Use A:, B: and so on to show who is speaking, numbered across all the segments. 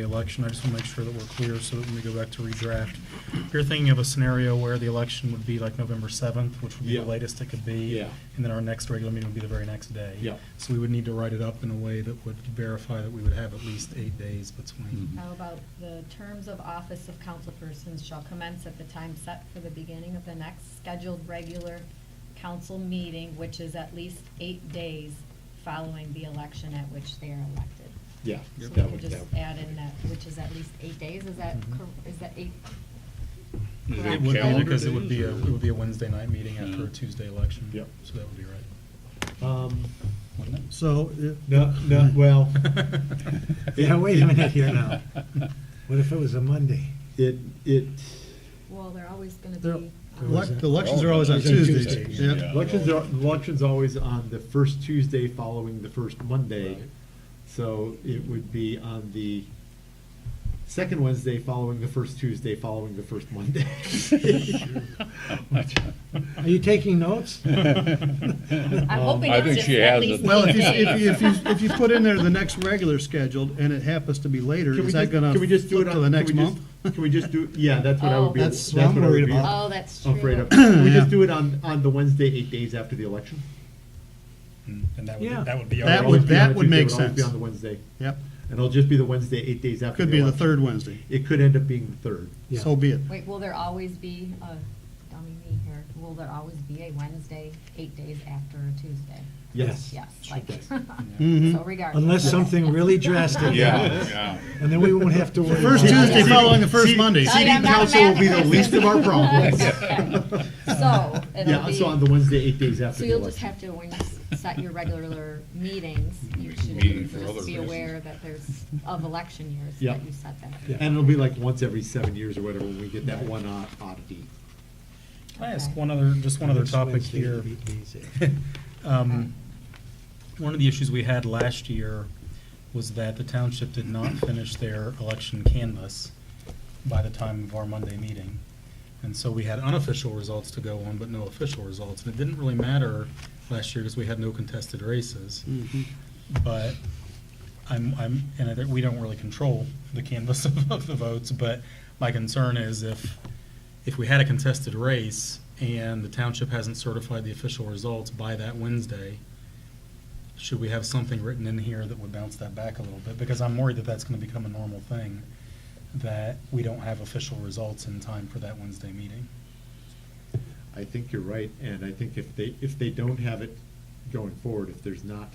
A: the election, I just want to make sure that we're clear so that when we go back to redraft, if you're thinking of a scenario where the election would be like November 7th, which would be the
B: Yeah.
A: latest it could be.
B: Yeah.
A: And then our next regular meeting would be the very next day.
B: Yeah.
A: So we would need to write it up in a way that would verify that we would have at least eight days between.
B: Mhm.
C: How about the terms of office of councilpersons shall commence at the time set for the beginning of the next scheduled regular council meeting, which is at least eight days following the election at which they are elected.
B: Yeah.
C: So we
B: that
C: can
B: would-
C: just
B: that would-
C: add in that, which is at least eight days, is that,
A: Mhm.
C: cor- is that eight?
D: Is it
A: It
C: correct?
A: would be
D: calendar
A: because it would
D: days
A: be, a-
D: or-
A: it would be a Wednesday night meeting after a
D: Yeah.
A: Tuesday election.
B: Yep.
A: So that would be right.
B: Um,
A: wouldn't it?
E: So, it-
B: No, no, well,
E: yeah, wait a minute here now. What if it was a Monday?
B: it, it,
C: Well, they're always gonna
E: They're-
C: be. um,
E: Elec-
F: Elec- Elections
E: Oh,
F: are always Oh, on
B: Tuesdays.
F: Tuesdays.
B: Tuesdays.
F: Yeah.
B: elections are, election's always on the first Tuesday following the first Monday.
A: Right.
B: So it would be on the second Wednesday following the first Tuesday following the first Monday.
E: Are you taking notes?
C: I'm
B: Um,
C: hoping
B: I
C: it's
D: think
C: just
D: she
C: at
D: has
C: least
D: it.
F: Well, if you,
C: eight
F: if
C: days.
F: you, if you, if you put in there the next regular scheduled and it happens to be later,
B: Can we
F: is
B: just-
F: that gonna
B: can we just do
F: flip
B: it
F: to
B: on-
F: the
B: can
F: next
B: we just-
F: month?
B: Can we just do, yeah, that's what I
C: Oh.
B: would be.
E: That's what
B: what
E: I'm
B: I would
E: worried
B: be
E: about.
C: Oh, that's true.
B: Afraid of. Can we
F: Yeah.
B: just do it on, on the Wednesday, eight days after the election?
A: Mm, And that
E: Yeah.
A: would, that would be. our
F: That
B: Always
A: regular-
F: would,
B: be on a
F: that would
B: Tuesday,
F: make
B: it'll always
F: sense.
B: Be on the Wednesday.
F: Yep,
B: And it'll just be the Wednesday, eight days after.
F: could be the
B: election.
F: third Wednesday,
B: It could end up being the third.
C: Oh,
E: Yeah.
F: so be it.
C: Wait, will there always be, a dummy me here, will there always be a Wednesday, eight days after a Tuesday?
B: Yes. Mm-hmm.
C: Yes, like,
F: Mhm.
C: so regardless.
E: Unless something really drastic.
D: Yeah, yeah.
E: And then we won't have to worry. about
F: First
E: it.
F: Tuesday following the first Monday.
C: Oh, yeah, I'm not a
B: council will be the
C: math
B: least of our problems.
C: Okay. So, it'll
B: Yeah,
C: be,
B: so on the Wednesday, eight days after
C: so
B: the
C: you'll just
B: election.
C: have to, when you s- set your regular meetings, you
D: Make a meeting
C: should
D: for other
C: just be
D: reasons.
C: aware that there's, of election years,
B: Yeah.
C: that you set that.
E: Yeah.
B: And it'll be like once every seven years or whatever, when we get that one odd- oddity.
A: Can I ask
C: Okay.
A: one other, just one other
E: Next
A: topic
E: Wednesday,
A: here?
E: eight days after.
C: Mm-hmm.
A: Um, One of the issues we had last year was that the township did not finish their election canvas by the time of our Monday meeting. And so we had unofficial results to go on, but no official results. And it didn't really matter last year because we had no contested races.
F: Mhm.
A: But I'm, I'm, and I think we don't really control the canvas of, of the votes, but my concern is if, if we had a contested race and the township hasn't certified the official results by that Wednesday, should we have something written in here that would bounce that back a little bit? Because I'm worried that that's gonna become a normal thing, that we don't have official results in time for that Wednesday meeting.
B: I think you're right, and I think if they, if they don't have it going forward, if there's not,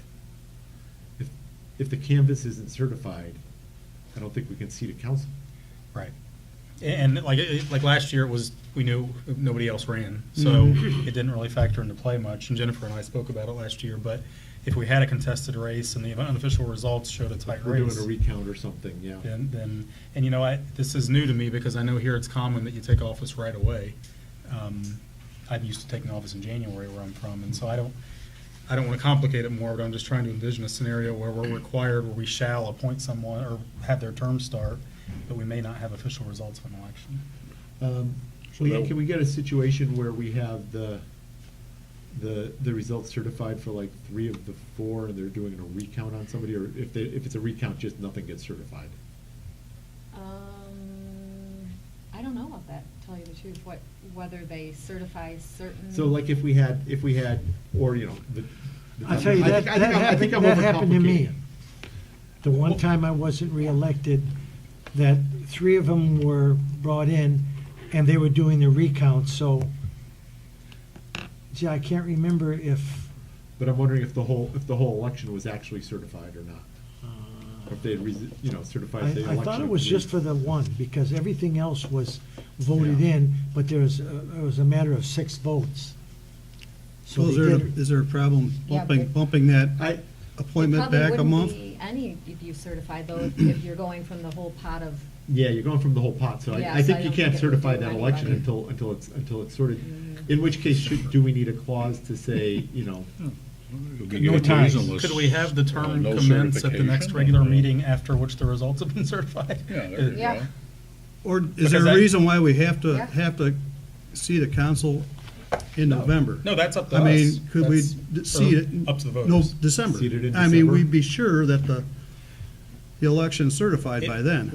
B: if, if the canvas isn't certified, I don't think we can see to council.
A: Right. And like, it- like last year it was, we knew nobody else ran, so it didn't really factor into play much. And Jennifer and I spoke about it last year, but if we had a contested race and the unofficial results showed a tight
B: If We're doing
A: race,
B: a recount or something, yeah.
A: then, then, and you know, I, this is new to me because I know here it's common that you take office right away. Um, I'm used to taking office in January where I'm from, and so I don't, I don't want to complicate it more, but I'm just trying to envision a scenario where we're required, where we shall appoint someone or have their term start, but we may not have official results of an election.
B: Um,
D: So
B: Leanne,
D: that-
B: can we get a situation where we have the, the, the results certified for like three of the four, and they're doing a recount on somebody, or if they, if it's a recount, just nothing gets certified?
C: Um, I don't know about that, to tell you the truth, what, whether they certify certain.
B: So like if we had, if we had, or, you know, the. the-
E: I'll tell you,
B: I
E: that,
B: think- I
E: that
B: think I'm- I
E: happened,
B: think I'm
E: that happened to me.
B: overcomplicating.
E: The one time I wasn't reelected, that three of them were brought in, and they were doing the recount, so, gee, I can't remember if,
B: But I'm wondering if the whole, if the whole election was actually certified or not,
E: uh,
B: or if they had, resi- you know, certified the
E: I, I
B: election.
E: thought it was just for the one, because everything else was voted
B: Yeah.
E: in, but there was, uh, it was a matter of six votes.
F: So
E: So
F: is
E: they
F: there,
E: did,
F: is there a problem
C: Yeah,
F: bumping,
C: but-
F: bumping that
B: I,
F: appointment back a month?
C: Probably wouldn't be any if you certify though, if- if you're going from the whole pot of,
B: Yeah, you're going from the whole pot, so
C: Yeah,
B: I, I
C: so
B: think
C: I
B: you
C: don't
B: can't
C: think it would
B: certify
C: do
B: that
C: anybody. Mm-hmm.
B: election until, until it's, until it's sorted. In which case, should, do we need a clause to say, you know,
E: No ties.
A: Could we have the term
D: no
A: commence at the next
D: certification,
A: regular
D: uh,
A: meeting after which the results have been certified? Uh,
D: Yeah, there you
C: Yeah.
D: go.
F: Or is there
A: Because I-
F: a reason why we have to,
C: Yeah.
F: have to see the council in November?
A: No, that's up to
F: I
A: us.
F: mean, could we
A: That's-
F: d- see
A: or
F: it?
A: Up to the
F: No,
A: voters.
F: December.
B: Seated in
F: I mean,
B: December.
F: we'd be sure that the, the election's certified
A: It-
F: by then.